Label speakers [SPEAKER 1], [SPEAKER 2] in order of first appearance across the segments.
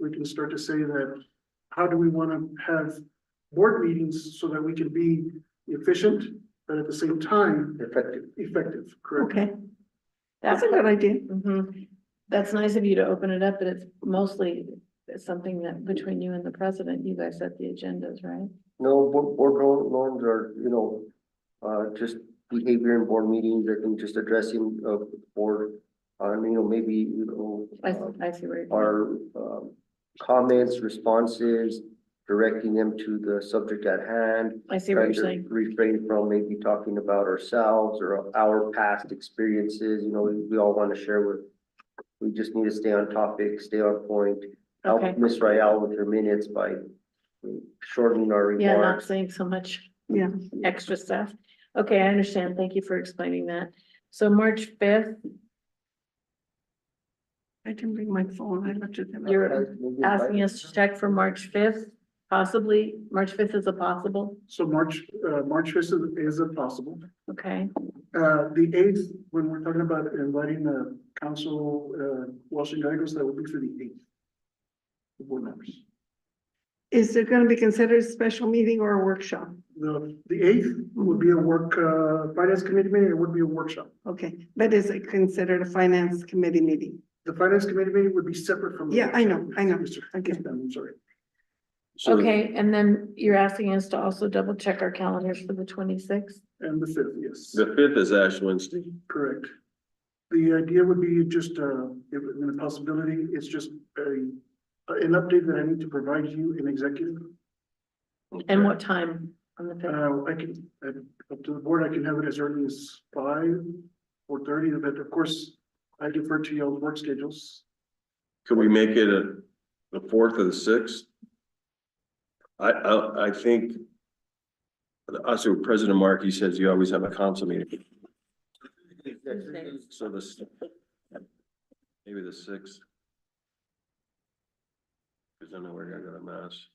[SPEAKER 1] we can start to say that, how do we wanna have board meetings so that we can be efficient, but at the same time,
[SPEAKER 2] effective.
[SPEAKER 1] effective, correct?
[SPEAKER 3] Okay, that's a good idea.
[SPEAKER 4] Mhm. That's nice of you to open it up, but it's mostly something that between you and the president, you guys set the agendas, right?
[SPEAKER 2] No, board, board nor- norms are, you know, uh, just behavior in board meetings, I think just addressing of board, uh, you know, maybe, you know.
[SPEAKER 4] I,
[SPEAKER 2] uh,
[SPEAKER 4] I see where you're. going.
[SPEAKER 2] our um, comments, responses, directing them to the subject at hand.
[SPEAKER 4] I see what
[SPEAKER 2] trying
[SPEAKER 4] you're
[SPEAKER 2] to
[SPEAKER 4] saying.
[SPEAKER 2] Refrain from maybe talking about ourselves or our past experiences, you know, we- we all want to share with. We just need to stay on topic, stay on point,
[SPEAKER 4] Okay.
[SPEAKER 2] help Miss Rayal with her minutes by shortening our
[SPEAKER 4] Yeah, not
[SPEAKER 2] remarks.
[SPEAKER 4] saying so much.
[SPEAKER 3] Yeah.
[SPEAKER 4] Extra stuff. Okay, I understand. Thank you for explaining that. So March fifth,
[SPEAKER 3] I didn't bring my phone. I looked at them.
[SPEAKER 4] You're-
[SPEAKER 2] Maybe invite-
[SPEAKER 4] asking us to check for March fifth, possibly, March fifth is a possible,
[SPEAKER 1] So March, uh, March fifth is a possible.
[SPEAKER 4] okay?
[SPEAKER 1] Uh, the eighth, when we're talking about inviting the council, uh, Washington Geigos, that would be for the eighth. The board members.
[SPEAKER 3] Is it gonna be considered a special meeting or a workshop?
[SPEAKER 1] The, the eighth would be a work, uh, finance committee meeting, it would be a workshop.
[SPEAKER 3] Okay, but is it considered a finance committee meeting?
[SPEAKER 1] The finance committee meeting would be separate from. the
[SPEAKER 3] Yeah, I know,
[SPEAKER 1] workshop.
[SPEAKER 3] I know.
[SPEAKER 1] Yes, sir.
[SPEAKER 3] Okay.
[SPEAKER 1] Yes, ma'am, I'm sorry.
[SPEAKER 5] So
[SPEAKER 4] Okay, and then you're asking us to also double check our calendars for the twenty-sixth?
[SPEAKER 1] And the fifth, yes,
[SPEAKER 5] the fifth is Ash Wednesday.
[SPEAKER 1] correct. The idea would be just, uh, if, in a possibility, it's just a, an update that I need to provide you in executive.
[SPEAKER 4] And what time on the fifth?
[SPEAKER 1] Uh, I can, uh, up to the board, I can have it as early as five or thirty, but of course, I defer to y'all's work schedules.
[SPEAKER 5] Could we make it a, the fourth or the sixth? I, I, I think. Also, President Markey says you always have a council meeting, so this. Maybe the sixth. Cause I know we're gonna go to mass.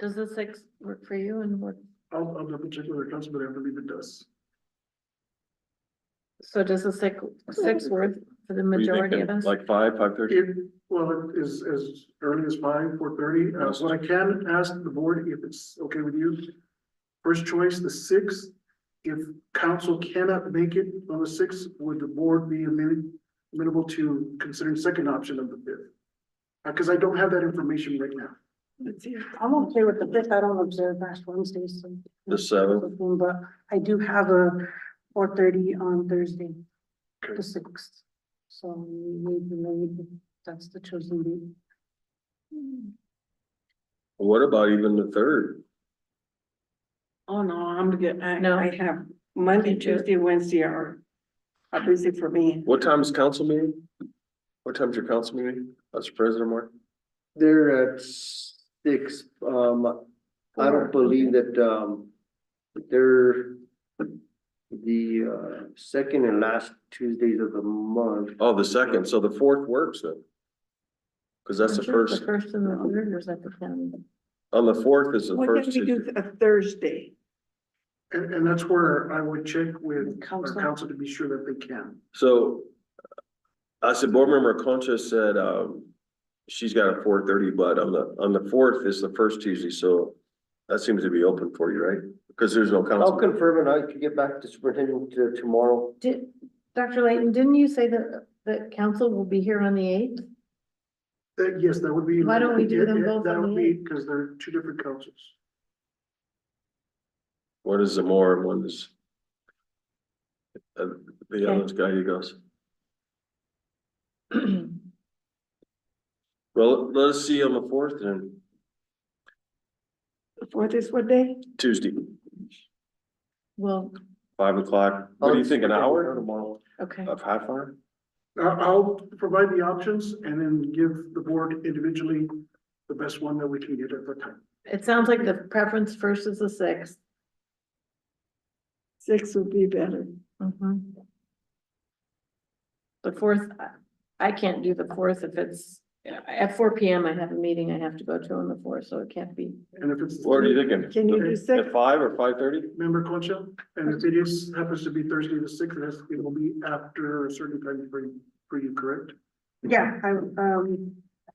[SPEAKER 4] Does the sixth work for you and what,
[SPEAKER 1] I'll, I'll double check with the council, but I believe it does.
[SPEAKER 4] so does the six, six work for the
[SPEAKER 5] What do you
[SPEAKER 4] majority of
[SPEAKER 5] thinking?
[SPEAKER 4] us?
[SPEAKER 5] Like five, five thirty?
[SPEAKER 1] It, well, it is as early as five, four thirty. Uh, what I can ask the board, if it's okay with you. First choice, the sixth. If council cannot make it on the sixth, would the board be amenable- amenable to considering second option of the fifth? Uh, cause I don't have that information right now.
[SPEAKER 3] Let's see.
[SPEAKER 6] I'm okay with the fifth, I don't observe last Wednesdays, so.
[SPEAKER 5] The seventh?
[SPEAKER 6] But I do have a four thirty on Thursday,
[SPEAKER 1] Okay.
[SPEAKER 6] the sixth. So maybe, maybe that's the chosen date.
[SPEAKER 5] What about even the third?
[SPEAKER 3] Oh, no, I'm good. I,
[SPEAKER 4] No.
[SPEAKER 3] I have Monday,
[SPEAKER 4] Me too.
[SPEAKER 3] Tuesday, Wednesday are, are busy for me.
[SPEAKER 5] What time's council meeting? What time's your council meeting? That's President Markey?
[SPEAKER 2] They're at six, um, I
[SPEAKER 4] Four,
[SPEAKER 2] don't believe that, um, they're the, uh, second and last Tuesdays of the month.
[SPEAKER 5] Oh, the second, so the fourth works then? Cause that's the
[SPEAKER 4] Is it
[SPEAKER 5] first,
[SPEAKER 4] The first and the third, or is that the county?
[SPEAKER 5] on the fourth is the
[SPEAKER 3] What can
[SPEAKER 5] first.
[SPEAKER 3] we do
[SPEAKER 5] Tuesday.
[SPEAKER 3] a Thursday?
[SPEAKER 1] And, and that's where I would check with our
[SPEAKER 6] Council.
[SPEAKER 1] council to be sure that they can.
[SPEAKER 5] So I said, board member Concha said, um, she's got a four thirty, but on the, on the fourth is the first Tuesday, so that seems to be open for you, right? Cause there's no
[SPEAKER 2] I'll
[SPEAKER 5] council.
[SPEAKER 2] confirm and I can get back to superintendent uh, tomorrow.
[SPEAKER 4] Did, Dr. Layton, didn't you say that, that council will be here on the eighth?
[SPEAKER 1] Uh, yes, that would be.
[SPEAKER 4] Why don't we do them
[SPEAKER 1] Yeah, yeah,
[SPEAKER 4] both
[SPEAKER 1] That
[SPEAKER 4] on
[SPEAKER 1] would
[SPEAKER 4] the
[SPEAKER 1] be, cause they're two different councils.
[SPEAKER 5] One is Zamora and one is uh, the other guy who goes. Well, let us see on the fourth and
[SPEAKER 3] The Fourth is what day?
[SPEAKER 5] Tuesday,
[SPEAKER 4] Well,
[SPEAKER 5] five o'clock. What do
[SPEAKER 2] Um,
[SPEAKER 5] you think, an hour?
[SPEAKER 2] Tomorrow.
[SPEAKER 4] okay,
[SPEAKER 5] Of half hour?
[SPEAKER 1] I, I'll provide the options and then give the board individually the best one that we can get at the time.
[SPEAKER 4] it sounds like the preference first is the sixth.
[SPEAKER 3] Six would be better.
[SPEAKER 4] Mhm. The fourth, I- I can't do the fourth if it's, at four P M, I have a meeting I have to go to on the fourth, so it can't be.
[SPEAKER 1] And if it's.
[SPEAKER 5] What are you thinking?
[SPEAKER 3] Can you do six?
[SPEAKER 5] At five or five thirty?
[SPEAKER 1] Member Concha, and if it is, happens to be Thursday the sixth, it has- it will be after a certain time for you, for you, correct?
[SPEAKER 6] Yeah, I, um,